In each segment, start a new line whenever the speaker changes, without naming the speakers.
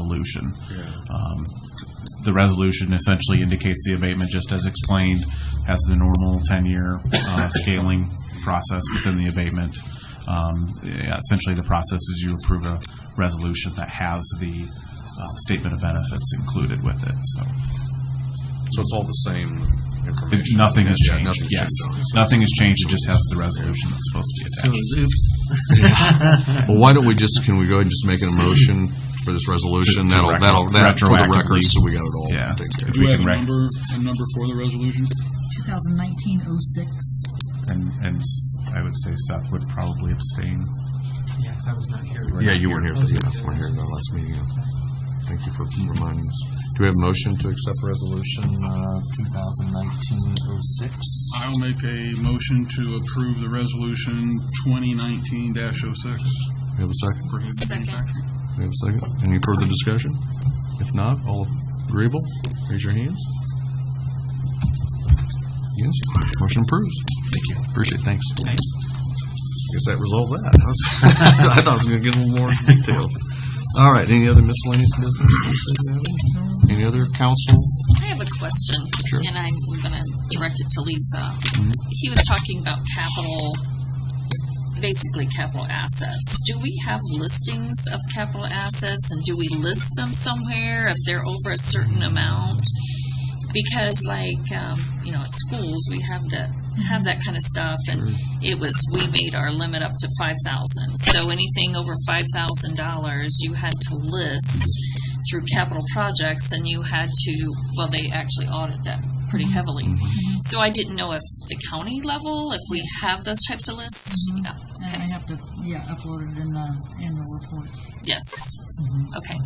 resolution. Um, The resolution essentially indicates the abatement, just as explained, has the normal 10-year uh, scaling process within the abatement. Um, yeah, Essentially, the process is you approve a resolution that has the uh, statement of benefits included with it, so.
So it's all the same
If
information?
Nothing has
Yeah,
changed,
nothing's
yes.
changed on it.
Nothing has changed, it just has the resolution that's supposed to be attached.
Well, why don't we just, can we go ahead and just make an motion for this resolution?
To- to record-
That'll, that'll, that, for the
retroactively.
record, so we got it all
Yeah.
taken care of.
If
Do
we
we have
can
a
rec-
number, a number for the resolution?
2019-06.
And, and s- I would say Seth would probably abstain.
Yeah, 'cause I was not here.
Yeah, you weren't here, for- yeah, you weren't here at the last meeting. yeah. Thank you for reminding us. Do we have a motion to accept resolution, uh, two thousand nineteen oh six?
I'll make a motion to approve the resolution 2019-06.
We have a second?
prohibiting
Second.
tax.
We have a second? Any further discussion? If not, all agreeable, raise your hands. Yes, motion approves. Thank you. Appreciate it, thanks.
Thanks.
Guess that resolved that. I was- I thought I was gonna get a little more detailed. All right, any other miscellaneous business? Any other council?
I have a question.
Sure.
And I'm going to direct it to Lisa. He was talking about capital, basically capital assets. Do we have listings of capital assets and do we list them somewhere if they're over a certain amount? Because like, um, you know, at schools, we have to have that kind of stuff and it was, we made our limit up to five thousand. So anything over five thousand dollars, you had to list through capital projects and you had to, well, they actually audit that pretty
Mm-hmm.
heavily. So I didn't know if the county level, if we have those types of lists. Yeah,
And I
Okay,
have to, yeah, upload it in the annual report.
yes,
Mm-hmm.
okay.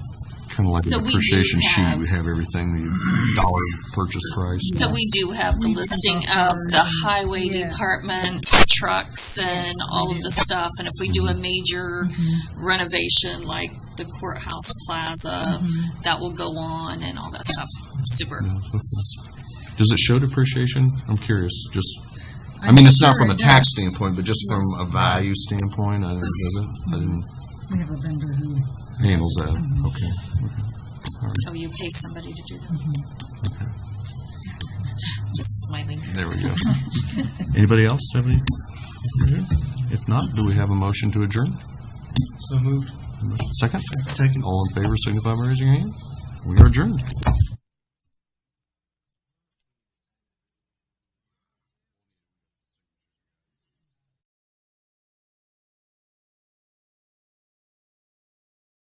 Kind of like
So
an
we do
appreciation sheet,
have-
we have everything, the dollar purchase price.
So we do have the
We have
listing of the
ours.
highway
Yeah.
departments, trucks and
Yes,
all
we
of
do. Mm-hmm.
the stuff. And if we do a major renovation like the courthouse plaza,
Mm-hmm.
that will go on and all that stuff. Super.
Does it show depreciation? I'm curious, just, I
I'm
mean, it's not
sure
from a
it
tax
does.
standpoint, but just from a value standpoint, I don't, does it? I didn't
We have a vendor who,
handle that, okay.
Oh, you pay somebody to do that? Just smiling.
There we go. Anybody else have any? If not, do we have a motion to adjourn?
So moved.
Second? All in favor, signify by raising your hand. We are adjourned.